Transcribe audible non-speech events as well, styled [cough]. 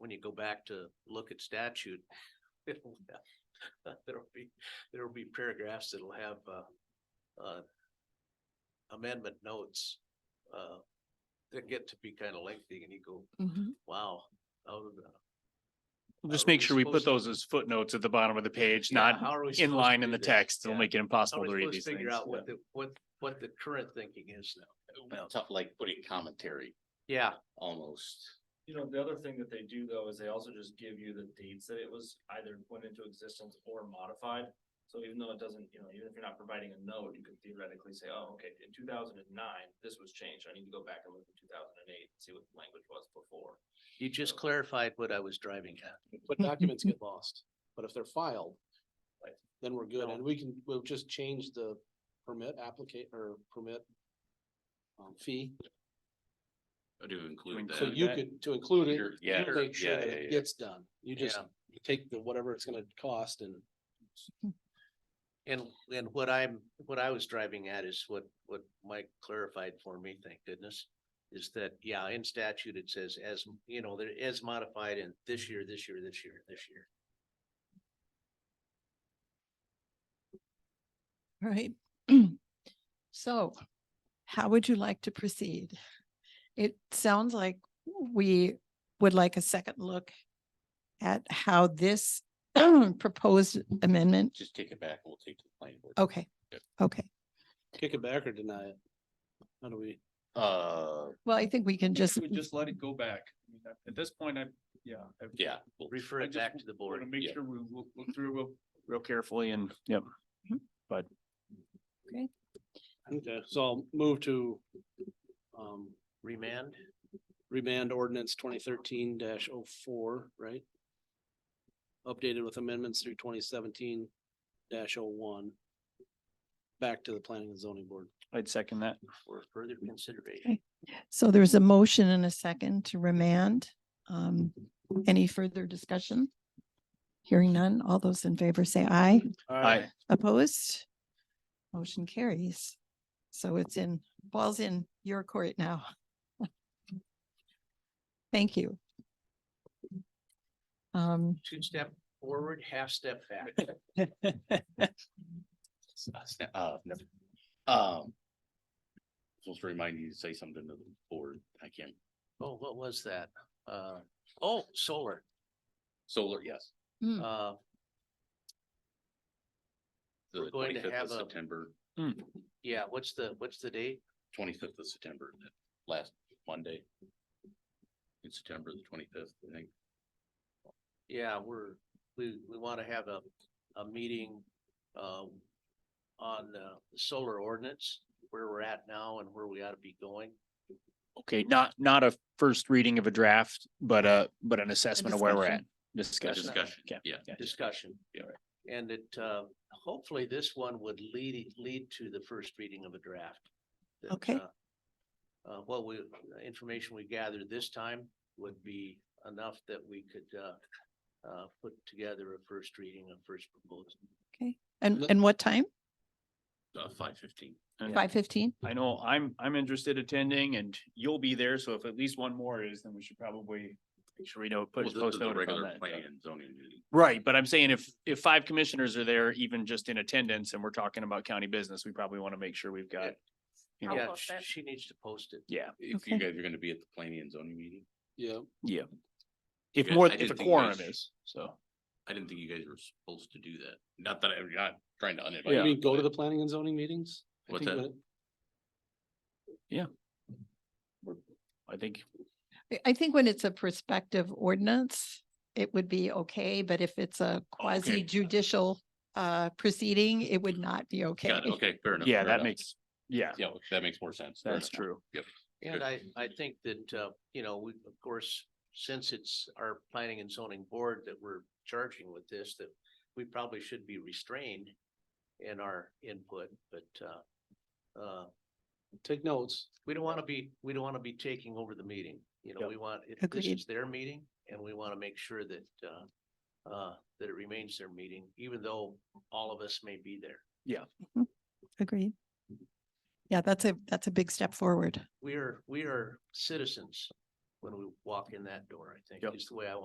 you go back to look at statute, [laughs] it'll have- [laughs] there'll be, there'll be paragraphs that'll have, uh, uh, amendment notes, uh, that get to be kind of lengthy and you go, Mhm. wow. how did the- We'll Just Are we make sure we put supposed to- those as footnotes at the bottom of the page, yeah, not how are we supposed in to line do in the this? text. It'll Yeah. make it How are impossible we to read supposed to these figure things. out what Yeah. the, what, what the current thinking is now? Tough, like putting commentary Yeah, almost. You know, the other thing that they do though is they also just give you the dates that it was either went into existence or modified. So even though it doesn't, you know, even if you're not providing a note, you could theoretically say, oh, okay, in two thousand and nine, this was changed. I need to go back and look at two thousand and eight and see what the language was before. you just clarified what I was driving at. [laughs] But documents get lost, but if they're filed, Right. then we're good, and we can, we'll just change the permit applicate or permit um, fee, To include so that. you could, to include it, You're- yeah, you make sure yeah, that yeah, yeah. it gets done, you just Yeah. take the, whatever it's gonna cost and. And, and what I'm, what I was driving at is what, what Mike clarified for me, thank goodness. Is that, yeah, in statute, it says as, you know, there is modified in this year, this year, this year, this year. All right. [clears throat] So how would you like to proceed? It sounds like we would like a second look at how this [clears throat] proposed amendment. Just take it back and we'll take to the planning board. Okay, okay. Kick it back or deny it? How do we, Uh, Well, I think we can [clears throat] just, would just let it go back. I mean, at- At this point, I, yeah. I- yeah, well, Refer I it just back to the We're board. gonna make yeah. sure we look, look through real, real carefully Fully and, yep. okay, so I'll move to um, Remand, remand ordinance twenty thirteen 4 right? Updated with amendments through twenty seventeen oh one Back to the planning and zoning board. I'd second that. for further consideration. so there's a motion and a second to remand. Um, any further discussion? Hearing none, all those in favor say aye. Aye. Opposed? Motion carries. So it's in, ball's in your court now. [laughs] Thank you. Um, Two step forward, half step [laughs] back. s- uh, sna- uh, never, um. Supposed to remind you to say something to the board. I can't, Oh, what was that? Uh, oh, solar, solar, yes, uh, the We're going to twenty-fifth of have a- September, yeah, what's the, what's the date? twenty-fifth of September, that last Monday. In September, the twenty-fifth, I think. Yeah, we're, we, we want to have a, a meeting, um, on uh, the solar ordinance, where we're at now and where we ought to be going. Okay, not, not a first reading of a draft, but uh but an assessment of where we're at. discussion. A Discussion. Discussion, Okay. yeah. Yeah. discussion. Yeah. And it, uh, hopefully this one would lead, lead to the first reading of a draft. that, Okay. uh, Uh, what we, the information we gathered this time would be enough that we could, uh, uh, put together a first reading, a first proposal. okay, and, Let- and what time? Uh, five fifteen. Yeah. Five fifteen? I know I'm, I'm interested attending and you'll be there. So if at least one more is, then we should probably make sure we know, Well, put, this post is a notice on regular that. Planning and zoning meeting. Right, but I'm saying if, if five commissioners are there, even just in attendance, and we're talking about county business, we probably want to make sure we've got. you know, Yeah, sh- she needs to post it. Yeah, If you Okay. guys are gonna be at the planning and zoning meeting, Yeah, yeah. If Yeah, more, I if a didn't think quorum that's- is, so. I didn't think you guys were supposed to do that. Not that I'm not trying to uninvite. you Yeah. you, mean go to but the planning and zoning meetings? I What's think that? I think, I- I think when it's a prospective ordinance, it would be okay, but if it's a quasi judicial uh, proceeding, it would not be okay. Got it. Okay, fair enough. yeah, fair that enough. makes, yeah, Yeah, that makes more sense. Fair that's enough. true. And Good. I, I think that, uh, you know, we, of course, since it's our planning and zoning board that we're charging with this, that we probably should be restrained in our input, but, uh, uh, Take notes. we don't want to be, we don't want to be taking over the meeting. You know, Yep. we want, it- this Agreed. is their meeting and we want to make sure that, uh, uh, that it remains their meeting, even though all of us may be there. Agreed. Yeah, that's a, that's a big step forward. We are, we are citizens when we walk in that door, I think, Yep. is the way I